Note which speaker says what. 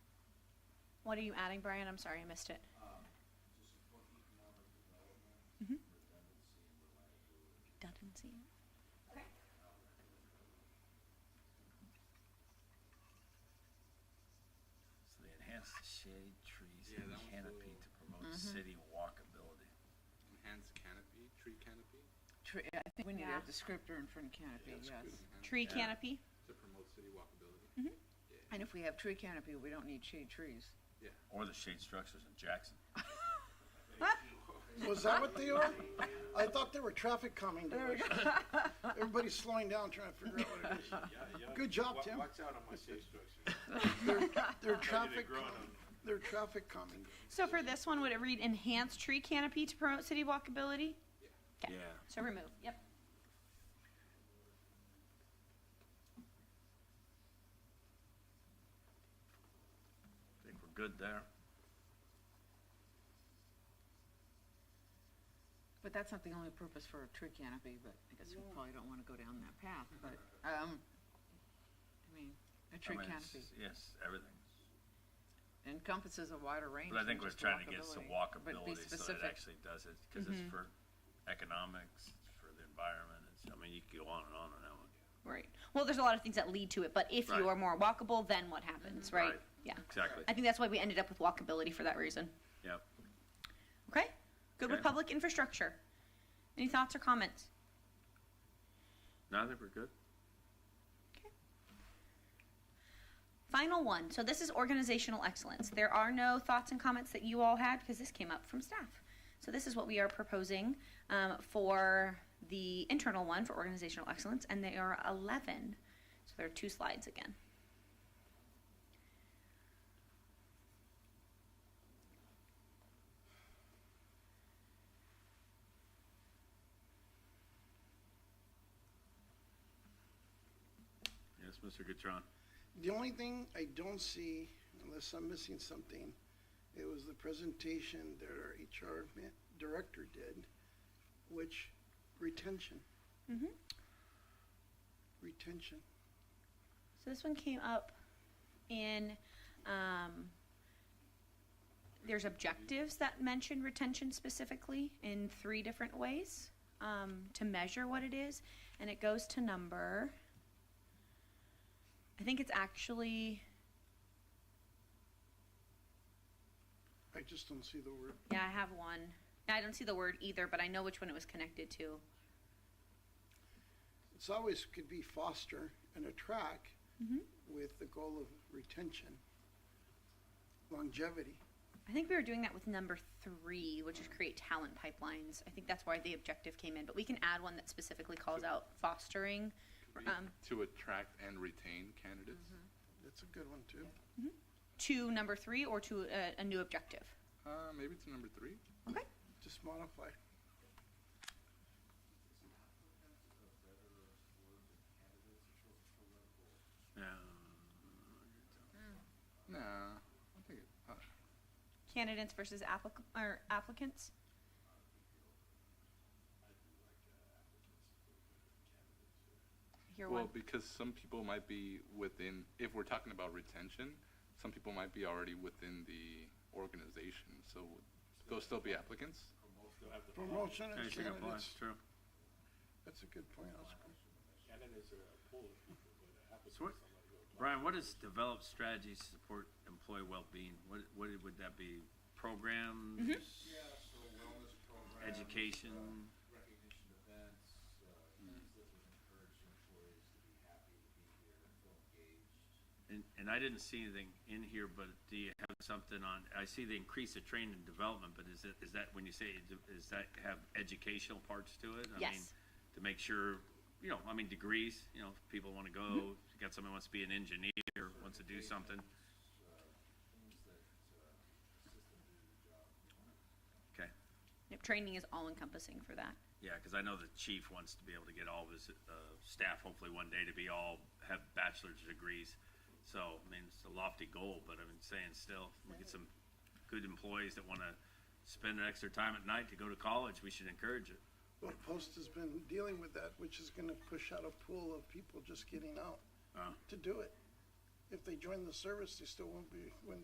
Speaker 1: What are you adding, Brian? I'm sorry, I missed it.
Speaker 2: Oh,
Speaker 1: Redundancy. Okay.
Speaker 2: So they enhance the shade, trees,
Speaker 3: Yeah,
Speaker 2: and
Speaker 3: that one's
Speaker 2: canopy
Speaker 3: blue.
Speaker 2: to promote city walkability.
Speaker 3: Enhanced canopy, tree canopy,
Speaker 4: Tree, I think we need
Speaker 1: Yeah.
Speaker 4: a descriptor in front of canopy, yes.
Speaker 1: Tree Mm-hmm.
Speaker 2: Yeah.
Speaker 1: canopy?
Speaker 3: to promote city walkability.
Speaker 4: And if we have tree canopy, we don't need shade trees.
Speaker 2: Or the shade structures in Jackson.
Speaker 5: Was that what they are? I thought they were traffic calming devices. Everybody's slowing down trying to figure out what it is. Good job, Tim.
Speaker 3: Watch out on my shade structure.
Speaker 5: They're
Speaker 3: Tell you
Speaker 5: traffic,
Speaker 3: they're growing
Speaker 5: calming-
Speaker 3: on me.
Speaker 5: they're traffic calming.
Speaker 1: So for this one, would it read enhance tree canopy to promote city walkability? Okay.
Speaker 2: Yeah.
Speaker 1: So remove, yep.
Speaker 2: I think we're good there.
Speaker 4: But that's not the only purpose for a tree canopy, but I guess we probably don't wanna go down that path, but, um, I mean, a
Speaker 2: Mm-hmm. I
Speaker 4: tree
Speaker 2: mean, it's-
Speaker 4: canopy
Speaker 2: Yes, everything.
Speaker 4: encompasses a wider range
Speaker 2: But I
Speaker 4: than
Speaker 2: think we're
Speaker 4: just
Speaker 2: trying to get some
Speaker 4: But be
Speaker 2: walkability so it
Speaker 4: specific.
Speaker 2: actually does it, because it's for economics, it's for the environment, it's, I mean, you could go on and on on that one.
Speaker 1: Right. Well, there's a lot of things that lead to it, but if
Speaker 2: Right. Mm-hmm.
Speaker 1: you are more walkable, then what happens, right?
Speaker 2: Right.
Speaker 1: Yeah.
Speaker 2: Exactly,
Speaker 1: I think that's why we ended up with walkability for that reason.
Speaker 2: yep.
Speaker 1: Okay? Good with
Speaker 2: Okay.
Speaker 1: public infrastructure. Any thoughts or comments?
Speaker 2: No, I think we're good.
Speaker 1: Final one. So this is organizational excellence. There are no thoughts and comments that you all had because this came up from staff. So this is what we are proposing um, for the internal one for organizational excellence, and they are 11. So there are two slides again.
Speaker 2: Yes, Mr. Gutron.
Speaker 5: The only thing I don't see, unless I'm missing something, it was the presentation that our HR ma- director did, which retention. Retention.
Speaker 1: So this one came up in, um, there's objectives that mention retention specifically in three different ways um, to measure what it is, and it goes to number. I think it's actually,
Speaker 5: I just don't see the word.
Speaker 1: yeah, I have one. I don't see the word either, but I know which one it was connected to.
Speaker 5: It's always could be foster and attract with the goal of retention, longevity.
Speaker 1: I think we were doing that with number three, which is create talent pipelines. I think that's why the objective came in, but we can add one that specifically calls out fostering. Um, Mm-hmm.
Speaker 3: To attract and retain candidates.
Speaker 5: That's a good one too.
Speaker 1: to number three or to a, a new objective.
Speaker 3: Uh, maybe to number three?
Speaker 1: Okay.
Speaker 5: Just modify.
Speaker 3: Nah, I think, it- uh,
Speaker 1: Candidates versus applic- or applicants. Your
Speaker 3: well,
Speaker 1: one.
Speaker 3: because some people might be within, if we're talking about retention, some people might be already within the organization, so they'll still be applicants?
Speaker 5: Promotion
Speaker 2: Yeah, you
Speaker 5: of
Speaker 2: should apply,
Speaker 5: candidates.
Speaker 2: True.
Speaker 5: That's a good point, Oscar.
Speaker 2: So what, Brian, what is develop strategies to support employee well-being? What, what would that be? Programs? Education?
Speaker 6: recognition events, uh, things that would encourage employees to be happy to be here and feel engaged.
Speaker 2: And, and I didn't see anything in here, but do you have something on, I see the increase of training and development, but is it, is that when you say, it, is that have educational parts to it? I mean,
Speaker 1: Yes.
Speaker 2: To make sure, you know, I mean, degrees, you know, if people wanna go, you got somebody who wants to be an engineer, wants to do something.
Speaker 6: uh,
Speaker 2: Okay.
Speaker 1: Yep, training is all encompassing for that.
Speaker 2: Yeah, because I know the chief wants to be able to get all of his uh, staff, hopefully one day, to be all have bachelor's degrees. So I mean, it's a lofty goal, but i am saying still, we get some good employees that want to spend an extra time at night to go to college. We should encourage it.
Speaker 5: Well, Post has been dealing with that, which is gonna push out a pool of people just getting out
Speaker 2: Uh,
Speaker 5: to do it. If they join the service, they still won't be, when